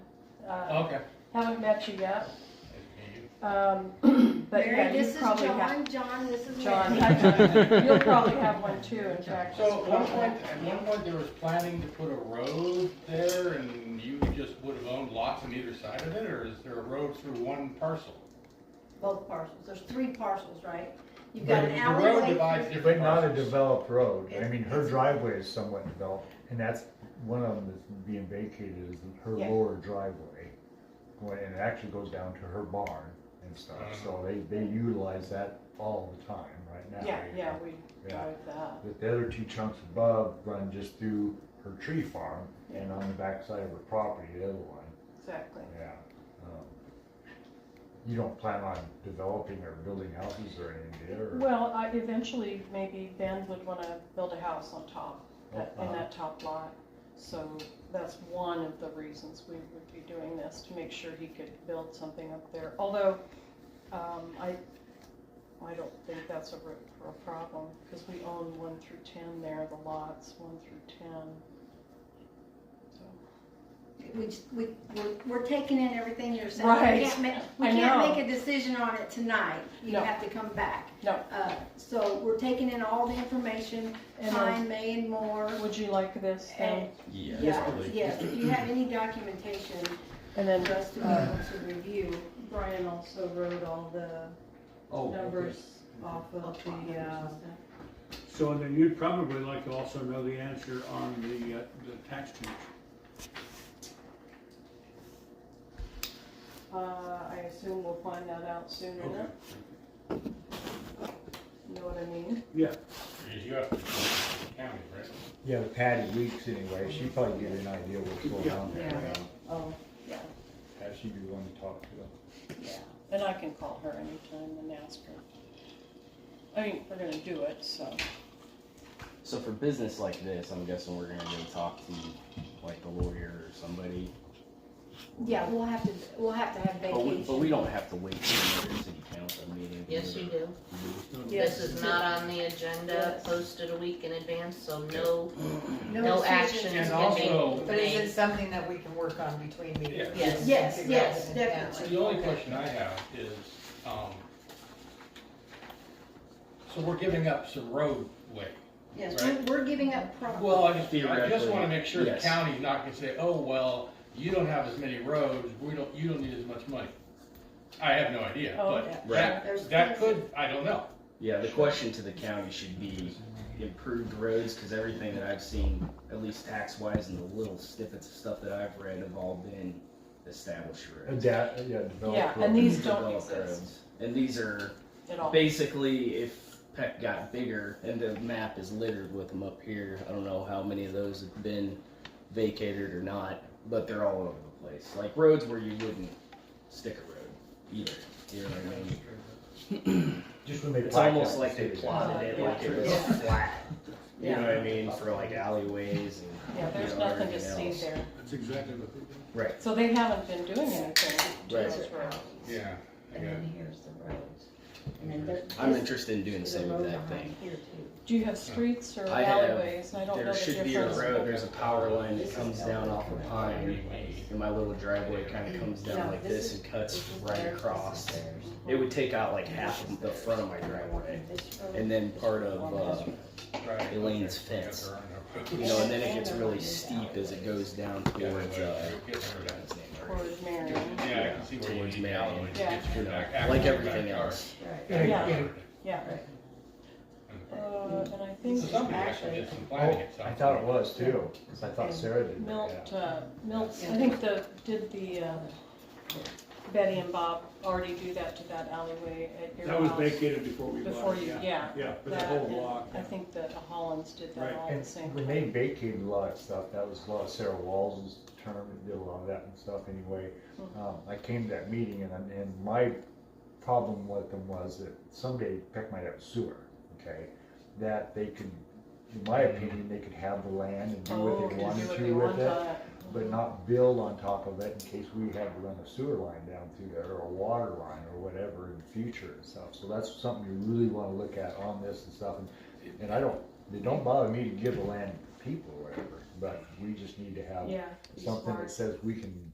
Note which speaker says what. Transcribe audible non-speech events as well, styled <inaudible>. Speaker 1: uh,
Speaker 2: Okay.
Speaker 1: haven't met you yet. Um, <clears throat> But yeah,
Speaker 3: Mary,
Speaker 1: you
Speaker 3: this is
Speaker 1: probably have,
Speaker 3: John, John, this is
Speaker 1: John, <laughs>
Speaker 3: Mary. <laughs>
Speaker 1: I- you'll probably have one too, in fact.
Speaker 2: So at one point, at one point, there was planning to put a road there and you just would have owned lots on either side of it, or is there a road through one parcel?
Speaker 3: Both parcels, there's three parcels, right? You've
Speaker 4: But
Speaker 3: got an
Speaker 4: the
Speaker 2: The road
Speaker 3: alleyway.
Speaker 2: divides
Speaker 3: through-
Speaker 4: But
Speaker 2: different
Speaker 4: not a
Speaker 2: parcels.
Speaker 4: developed road, I
Speaker 3: It's-
Speaker 4: mean, her
Speaker 3: it's-
Speaker 4: driveway is somewhat developed, and that's, one of them that's being vacated is her
Speaker 3: Yeah.
Speaker 4: lower driveway. Going, and it actually goes down to her barn and stuff, so they, they utilize that all the time right now.
Speaker 1: Yeah, yeah, we uh,
Speaker 4: Yeah.
Speaker 1: drive that.
Speaker 4: But the other two chunks above run just through her tree farm and
Speaker 1: Yeah.
Speaker 4: on the backside of her property, the other one.
Speaker 1: Exactly.
Speaker 4: Yeah. um, You don't plan on developing or building houses or anything there? or-
Speaker 1: Well, I, eventually, maybe Ben would wanna build a house on top, that- in
Speaker 4: Uh-huh.
Speaker 1: that top lot. So that's one of the reasons we would be doing this, to make sure he could build something up there. Although, um, I, I don't think that's a real, real problem, because we own one through ten there, the lots, one through ten. So
Speaker 3: We, just- we, we're, we're taking in everything you're saying.
Speaker 1: Right.
Speaker 3: We can't make, we
Speaker 1: I know.
Speaker 3: can't make a decision on it tonight. You
Speaker 1: No.
Speaker 3: have to come back.
Speaker 1: No.
Speaker 3: Uh, so we're taking in all the information,
Speaker 1: And
Speaker 3: time, May and more.
Speaker 1: Would you like this then?
Speaker 3: Yeah, yes, if you have any documentation
Speaker 1: And then
Speaker 3: for us to be able to review,
Speaker 5: Brian also wrote all the
Speaker 6: Oh, okay.
Speaker 5: numbers off
Speaker 3: I'll
Speaker 5: of
Speaker 3: try and
Speaker 5: the, uh,
Speaker 3: understand.
Speaker 7: So then you'd probably like to also know the answer on the, uh, the tax change.
Speaker 1: Uh, I assume we'll find that out soon enough. You know what I mean?
Speaker 7: Yeah,
Speaker 2: Because You have to, county, right?
Speaker 4: Yeah, the Patty Weeks anyway, she'd probably give you an idea what's going on there.
Speaker 5: Yeah.
Speaker 4: yeah.
Speaker 1: Oh, yeah,
Speaker 4: That she'd be one to talk to.
Speaker 1: yeah. And I can call her anytime and ask her. I mean, we're gonna do it, so.
Speaker 6: So for business like this, I'm guessing we're gonna go talk to like the lawyer or somebody.
Speaker 3: Yeah, we'll have to, we'll have to have
Speaker 6: But we, but we
Speaker 3: vacation.
Speaker 6: don't have to wait for another city council meeting.
Speaker 8: Yes, you do.
Speaker 3: Yes.
Speaker 8: This is not on the agenda, posted a week in advance, so no, no
Speaker 5: decisions.
Speaker 8: actions
Speaker 2: And
Speaker 8: can
Speaker 2: also-
Speaker 8: be
Speaker 5: But is it
Speaker 8: made.
Speaker 5: something that we can work on between meetings?
Speaker 2: Yeah.
Speaker 8: Yes.
Speaker 3: Yes,
Speaker 5: Figure out
Speaker 3: yes,
Speaker 5: what it is.
Speaker 3: definitely.
Speaker 2: The only question I have is, um, so we're giving up some roadway.
Speaker 3: Yes, we're, we're giving up property.
Speaker 2: Well, I just, I just wanna
Speaker 6: Theoretically,
Speaker 2: make sure the
Speaker 6: yes.
Speaker 2: county's not gonna say, oh, well, you don't have as many roads, we don't, you don't need as much money. I have no idea,
Speaker 1: Oh,
Speaker 2: but
Speaker 6: yeah.
Speaker 3: There's
Speaker 2: that, that
Speaker 3: plenty.
Speaker 2: could, I don't know.
Speaker 6: Yeah, the question to the county should be improved roads, cause everything that I've seen, at least tax wise and the little snippets of stuff that I've read have all been established roads.
Speaker 4: Adapt, yeah, develop.
Speaker 1: Yeah,
Speaker 4: roads.
Speaker 1: and these don't
Speaker 6: Developed
Speaker 1: exist
Speaker 6: roads. And these are
Speaker 1: at all.
Speaker 6: basically if Peck got bigger and the map is littered with them up here, I don't know how many of those have been vacated or not, but they're all over the place. Like roads where you wouldn't stick a road either. You know what I mean?
Speaker 4: Just when they.
Speaker 6: It's
Speaker 4: plat
Speaker 6: almost
Speaker 4: that
Speaker 6: like they
Speaker 4: decision.
Speaker 6: plotted it like it was flat. You know what I mean? For like alleyways and
Speaker 1: Yeah, there's
Speaker 6: you know,
Speaker 1: nothing to
Speaker 6: everything
Speaker 1: see
Speaker 6: else.
Speaker 1: there.
Speaker 7: that's exactly what they did.
Speaker 6: Right.
Speaker 1: So they haven't been doing anything to
Speaker 6: Right.
Speaker 1: those roads.
Speaker 2: Yeah.
Speaker 8: And then here's the roads. And then there-
Speaker 6: I'm
Speaker 8: this
Speaker 6: interested in doing the
Speaker 8: is a
Speaker 6: same
Speaker 8: road
Speaker 6: exact thing.
Speaker 8: behind Here too.
Speaker 1: Do you have streets or
Speaker 6: I have-
Speaker 1: alleyways? I don't know
Speaker 6: There
Speaker 1: the
Speaker 6: should be a
Speaker 1: difference.
Speaker 6: road, there's a power line that comes down off of Pine. And my little driveway kind of comes down like this and cuts
Speaker 8: This is
Speaker 6: right
Speaker 8: theirs, this is
Speaker 6: across.
Speaker 8: theirs.
Speaker 6: It would take out like half of the front of my driveway,
Speaker 8: This road.
Speaker 6: and then part of, uh,
Speaker 2: Right.
Speaker 6: Elaine's
Speaker 2: Okay. Yeah,
Speaker 6: fence.
Speaker 2: there are no roads.
Speaker 6: you know, and then it gets really steep as it goes down
Speaker 2: <laughs> Yeah,
Speaker 6: towards, uh,
Speaker 2: we'll get rid of that.
Speaker 6: what's his name, or,
Speaker 1: Towards Marion.
Speaker 2: Yeah, I can see where you
Speaker 6: Towards
Speaker 2: need
Speaker 6: Marion.
Speaker 2: alleyway to
Speaker 1: Yeah.
Speaker 2: get
Speaker 6: you
Speaker 2: your
Speaker 6: know,
Speaker 2: back- access
Speaker 6: like
Speaker 2: to your
Speaker 6: everything
Speaker 2: backyard.
Speaker 6: else.
Speaker 8: Right.
Speaker 4: And-
Speaker 1: Yeah.
Speaker 4: and-
Speaker 1: Yeah. Uh, and I
Speaker 2: So
Speaker 1: think
Speaker 2: somebody actually did some planning at
Speaker 4: Oh,
Speaker 2: some
Speaker 4: I thought it
Speaker 2: point.
Speaker 4: was too, 'cause I thought Sarah did that, yeah.
Speaker 1: Milt, uh, Milt, I think the, did the, uh, Betty and Bob already do that to that alleyway at your
Speaker 7: That was
Speaker 1: house?
Speaker 7: vacated before we bought it.
Speaker 1: Before you, yeah.
Speaker 7: Yeah, for the
Speaker 1: That
Speaker 7: whole
Speaker 1: and
Speaker 7: block.
Speaker 1: I think the Hollands did that
Speaker 7: Right.
Speaker 1: all at the same
Speaker 4: And when they
Speaker 1: time.
Speaker 4: vacated a lot of stuff, that was a lot of Sarah Walls's term, and did a lot of that and stuff anyway.
Speaker 1: Mhm.
Speaker 4: Um, I came to that meeting and, I'm- and my problem with them was that someday Peck might have sewer, okay? That they could, in my opinion, they could have the land and do
Speaker 1: Oh,
Speaker 4: what
Speaker 1: to
Speaker 4: they
Speaker 1: do
Speaker 4: wanted
Speaker 1: what they
Speaker 4: to with
Speaker 1: want
Speaker 4: it,
Speaker 1: on it.
Speaker 4: but not build on top of it in case we had to run a sewer line down through there or a water line or whatever in the future and stuff. So that's something you really wanna look at on this and stuff. And and I don't, it don't bother me to give the land to people or whatever, but we just need to have
Speaker 1: Yeah. be
Speaker 4: something
Speaker 1: smart.
Speaker 4: that says we can